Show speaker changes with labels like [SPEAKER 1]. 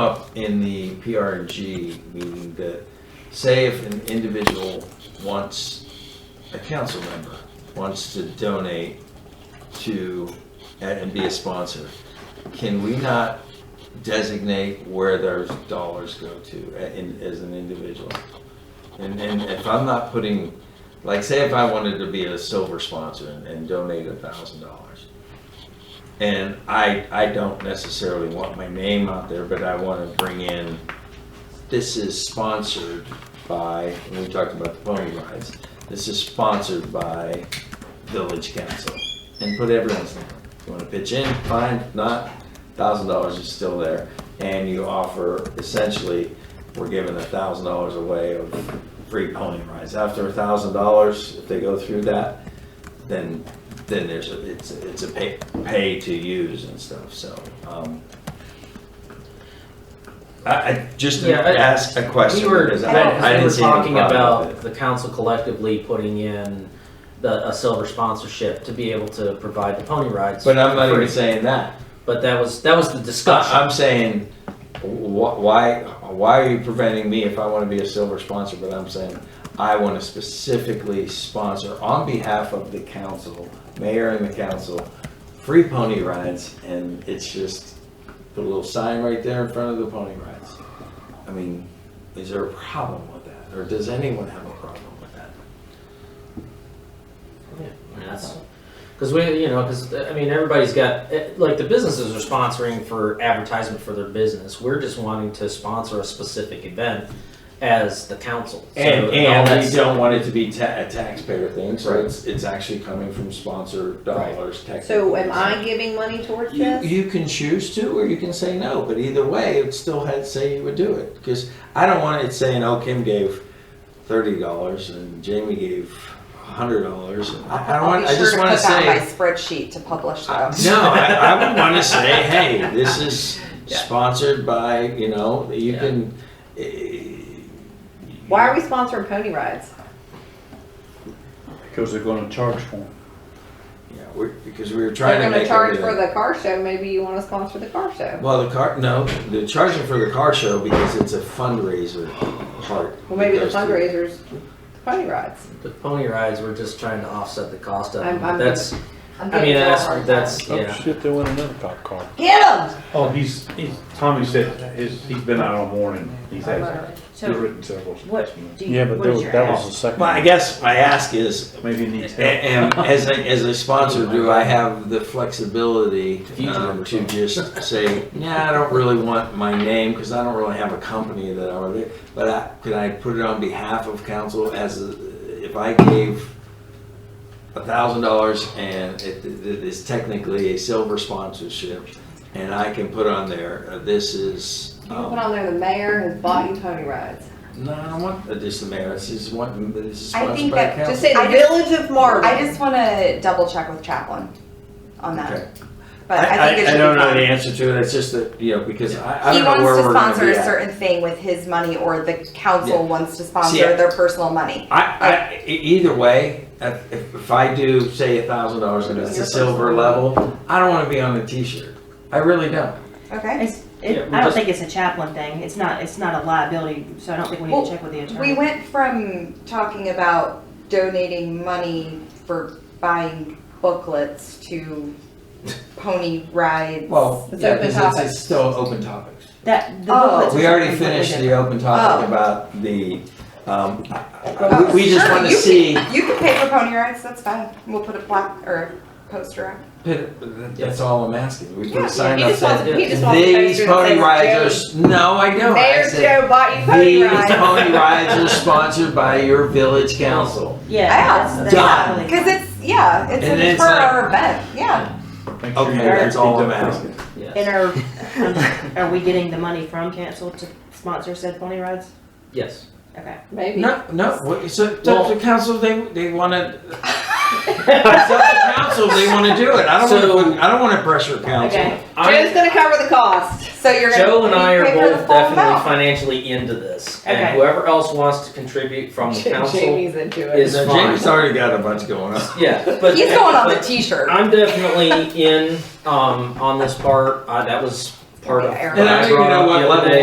[SPEAKER 1] up in the PRG meeting that, say if an individual wants, a council member wants to donate to, and and be a sponsor, can we not designate where those dollars go to a- in- as an individual? And, and if I'm not putting, like, say if I wanted to be a silver sponsor and- and donate a thousand dollars, and I, I don't necessarily want my name out there, but I want to bring in, this is sponsored by, and we talked about the pony rides, this is sponsored by Village Council. And put everyone's name. You want to pitch in, fine, If not, thousand dollars is still there. And you offer, essentially, we're giving a thousand dollars away of free pony rides. After a thousand dollars, if they go through that, then, then there's, a it's, it's a pay, pay to use and stuff, so. um, I, I just
[SPEAKER 2] Yeah, I-
[SPEAKER 1] ask a question
[SPEAKER 2] We were,
[SPEAKER 1] because I,
[SPEAKER 2] Ben,
[SPEAKER 1] I
[SPEAKER 2] we
[SPEAKER 1] didn't
[SPEAKER 2] were
[SPEAKER 1] see any
[SPEAKER 2] talking
[SPEAKER 1] problem
[SPEAKER 2] about
[SPEAKER 1] with it.
[SPEAKER 2] the council collectively putting in the, a silver sponsorship to be able to provide the pony rides.
[SPEAKER 1] But I'm not
[SPEAKER 2] for
[SPEAKER 1] even
[SPEAKER 2] free.
[SPEAKER 1] saying that.
[SPEAKER 2] But that was, that was the discussion.
[SPEAKER 1] I- I'm saying, wh- why, why are you preventing me if I want to be a silver sponsor, but I'm saying I want to specifically sponsor on behalf of the council, mayor and the council, free pony rides, and it's just, put a little sign right there in front of the pony rides. I mean, is there a problem with that, or does anyone have a problem with that?
[SPEAKER 2] Yeah, I mean, that's, cause we, you know, cause, I mean, everybody's got, eh, like, the businesses are sponsoring for advertisement for their business. We're just wanting to sponsor a specific event as the council. So,
[SPEAKER 1] And,
[SPEAKER 2] all
[SPEAKER 1] and we
[SPEAKER 2] that's-
[SPEAKER 1] don't want it to be ta- a taxpayer thing, so
[SPEAKER 2] Right.
[SPEAKER 1] it's, it's actually coming from sponsor dollars technically.
[SPEAKER 3] So am I giving money towards
[SPEAKER 1] You,
[SPEAKER 3] this?
[SPEAKER 1] you can choose to, or you can say no, but either way, it still had to say you would do it, because I don't want it saying, oh, Kim gave thirty dollars and Jamie gave a hundred dollars, I, I don't want, I just wanna
[SPEAKER 3] I'll be
[SPEAKER 1] say.
[SPEAKER 3] sure to put that in my spreadsheet to publish
[SPEAKER 1] I-
[SPEAKER 3] those.
[SPEAKER 1] No, I, I would wanna say, hey, this is
[SPEAKER 2] Yeah.
[SPEAKER 1] sponsored by, you know, you
[SPEAKER 2] Yeah.
[SPEAKER 1] can. eh,
[SPEAKER 3] Why are we sponsoring pony rides?
[SPEAKER 4] Because they're gonna charge for them.
[SPEAKER 1] Yeah, we're, because we were
[SPEAKER 3] They're
[SPEAKER 1] trying to
[SPEAKER 3] gonna
[SPEAKER 1] make
[SPEAKER 3] charge
[SPEAKER 1] everything.
[SPEAKER 3] for the car show, maybe you wanna sponsor the car show.
[SPEAKER 1] Well, the car, no, they're charging for the car show because it's a fundraiser part.
[SPEAKER 3] Well, maybe the
[SPEAKER 1] that goes to-
[SPEAKER 3] fundraisers, the pony rides.
[SPEAKER 2] The pony rides, we're just trying to offset the cost of
[SPEAKER 3] I'm-
[SPEAKER 2] them.
[SPEAKER 3] I'm-
[SPEAKER 2] That's,
[SPEAKER 3] I'm
[SPEAKER 2] I
[SPEAKER 3] giving
[SPEAKER 2] mean,
[SPEAKER 3] y'all a
[SPEAKER 2] that's,
[SPEAKER 3] hard time.
[SPEAKER 2] that's,
[SPEAKER 4] Oh,
[SPEAKER 2] yeah.
[SPEAKER 4] shit, they want another cop car.
[SPEAKER 3] Get them!
[SPEAKER 4] Oh, he's, he's, Tommy said, his, he's been out all morning. He's had, he's
[SPEAKER 5] So
[SPEAKER 4] written several.
[SPEAKER 5] what do you,
[SPEAKER 4] Yeah, but
[SPEAKER 5] what is your
[SPEAKER 4] that was the
[SPEAKER 5] ask?
[SPEAKER 4] second.
[SPEAKER 1] Well, I guess my ask is,
[SPEAKER 4] Maybe he needs
[SPEAKER 1] a-
[SPEAKER 4] help.
[SPEAKER 1] and as a, as a sponsor, do I have the flexibility um, to just say, nah, I don't really want my name, because I don't really have a company that I would, but I, could I put it on behalf of council as, a- if I gave a thousand dollars and it, it is technically a silver sponsorship, and I can put on there, uh, this is.
[SPEAKER 3] You can
[SPEAKER 1] um,
[SPEAKER 3] put on there, the mayor has bought you pony rides.
[SPEAKER 1] No, I don't want uh, just the mayor, this is one, this is
[SPEAKER 6] I
[SPEAKER 1] sponsored
[SPEAKER 6] think
[SPEAKER 1] by
[SPEAKER 6] that-
[SPEAKER 1] council.
[SPEAKER 3] Just say the
[SPEAKER 6] I just-
[SPEAKER 3] village of Marvin.
[SPEAKER 6] I just want to double check with Chaplin on
[SPEAKER 1] Okay.
[SPEAKER 6] that. But I think it should
[SPEAKER 1] I
[SPEAKER 6] be
[SPEAKER 1] don't know the
[SPEAKER 6] fun.
[SPEAKER 1] answer to it. It's just that you know because I, I
[SPEAKER 6] He
[SPEAKER 1] don't know where
[SPEAKER 6] wants to
[SPEAKER 1] we're going to
[SPEAKER 6] sponsor
[SPEAKER 1] be
[SPEAKER 6] a
[SPEAKER 1] at.
[SPEAKER 6] certain thing with his money or the
[SPEAKER 1] Yeah.
[SPEAKER 6] council wants to
[SPEAKER 1] I-
[SPEAKER 6] sponsor their personal money.
[SPEAKER 1] I, I, e- either way, if, if I do say a thousand dollars and it's a silver level, I don't want to be on the T-shirt. I really don't.
[SPEAKER 6] Okay?
[SPEAKER 5] It's, it,
[SPEAKER 2] Yeah, we
[SPEAKER 5] I don't
[SPEAKER 2] just-
[SPEAKER 5] think it's a chaplain thing. It's not, it's not a liability, so I don't think we need
[SPEAKER 6] Well,
[SPEAKER 5] to check with the
[SPEAKER 6] We
[SPEAKER 5] attorney.
[SPEAKER 6] went from talking about donating money for buying booklets to pony rides.
[SPEAKER 1] Well,
[SPEAKER 3] It's
[SPEAKER 1] yeah,
[SPEAKER 3] open
[SPEAKER 1] because it's,
[SPEAKER 3] topics.
[SPEAKER 1] it's still open topics.
[SPEAKER 5] That, the
[SPEAKER 6] Oh,
[SPEAKER 5] booklets are
[SPEAKER 1] we already
[SPEAKER 5] something
[SPEAKER 1] finished
[SPEAKER 5] completely
[SPEAKER 1] the open topic
[SPEAKER 6] Oh.
[SPEAKER 1] about the. Um, I- I-
[SPEAKER 6] Oh,
[SPEAKER 1] we, we just
[SPEAKER 6] sure,
[SPEAKER 1] want to
[SPEAKER 6] you
[SPEAKER 1] see.
[SPEAKER 6] can- You can pay for pony rides, that's fine. We'll put a plaque or a poster up.
[SPEAKER 1] Pit- That's all I'm asking. We put
[SPEAKER 3] Yeah,
[SPEAKER 1] a sign
[SPEAKER 3] he
[SPEAKER 1] up
[SPEAKER 3] just wants-
[SPEAKER 1] saying,
[SPEAKER 3] he just wants to go
[SPEAKER 1] these
[SPEAKER 3] through the
[SPEAKER 1] pony
[SPEAKER 3] things,
[SPEAKER 1] riders. No, I don't. I
[SPEAKER 3] Mayor
[SPEAKER 1] said,
[SPEAKER 3] Joe bought you pony
[SPEAKER 1] These
[SPEAKER 3] rides.
[SPEAKER 1] pony rides are sponsored by your village council.
[SPEAKER 5] Yeah,
[SPEAKER 6] Yeah,
[SPEAKER 5] that's, that's
[SPEAKER 1] Done.
[SPEAKER 5] not really-
[SPEAKER 6] Because it's, yeah, it's
[SPEAKER 1] And
[SPEAKER 6] it's
[SPEAKER 1] it's
[SPEAKER 6] for
[SPEAKER 1] like-
[SPEAKER 6] our event, yeah.
[SPEAKER 4] Make sure
[SPEAKER 1] Okay,
[SPEAKER 4] you-
[SPEAKER 1] that's all I'm asking.
[SPEAKER 2] Yes.
[SPEAKER 5] And Um, are, are we getting the money from council to sponsor said pony rides?
[SPEAKER 2] Yes.
[SPEAKER 5] Okay.
[SPEAKER 3] Maybe.
[SPEAKER 1] No, no, what- it's up
[SPEAKER 2] Well-
[SPEAKER 1] to the council, they, they wanna, it's up to council, they wanna do it, I don't wanna,
[SPEAKER 2] So-
[SPEAKER 1] put- I don't wanna pressure council.
[SPEAKER 5] Okay.
[SPEAKER 3] Joe's gonna cover the cost.
[SPEAKER 6] So you're gonna.
[SPEAKER 2] Joe and I
[SPEAKER 6] you
[SPEAKER 2] are
[SPEAKER 6] pay for the
[SPEAKER 2] both
[SPEAKER 6] full
[SPEAKER 2] definitely
[SPEAKER 6] amount.
[SPEAKER 2] financially into this,
[SPEAKER 5] Okay.
[SPEAKER 2] and whoever else wants to contribute from the council,
[SPEAKER 3] Jamie's into it.
[SPEAKER 2] is
[SPEAKER 1] Now,
[SPEAKER 2] fine.
[SPEAKER 1] Jamie's already got a bunch going on.
[SPEAKER 2] yeah, but.
[SPEAKER 6] He's going on the
[SPEAKER 2] but
[SPEAKER 6] t-shirt.
[SPEAKER 2] I'm definitely in, um, on this part, uh, that was part of.
[SPEAKER 6] Yeah, Aaron.
[SPEAKER 2] what
[SPEAKER 1] And I don't even
[SPEAKER 2] brought
[SPEAKER 1] know
[SPEAKER 2] up
[SPEAKER 1] what
[SPEAKER 2] the other
[SPEAKER 1] level
[SPEAKER 2] day.